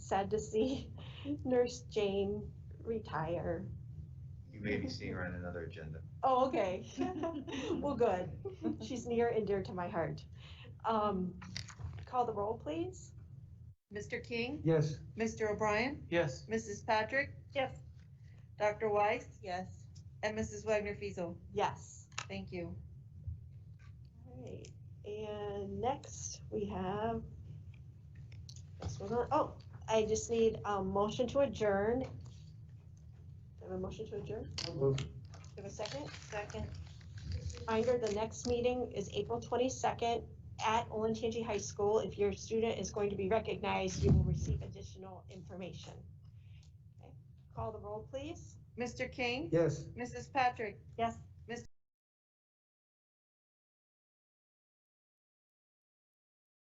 sad to see Nurse Jane retire. You may be seeing her on another agenda. Oh, okay. Well, good. She's near and dear to my heart. Um, Call the roll, please. Mr. King, Yes. Mr. O'Brien, Yes. Mrs. Patrick, Yes. Dr. Weiss, Yes. and Mrs. Wagner Fiesel. Yes. Thank you. All right. And next we have, this was on, oh, I just need a motion to adjourn. Do I Have a motion to adjourn? Do I Have a second? Second. Reminder, the next meeting is April twenty-second at Olentangy High School. If your student is going to be recognized, you will receive additional information. Okay. Call the roll, please. Mr. King, Yes. Mrs. Patrick, Yes.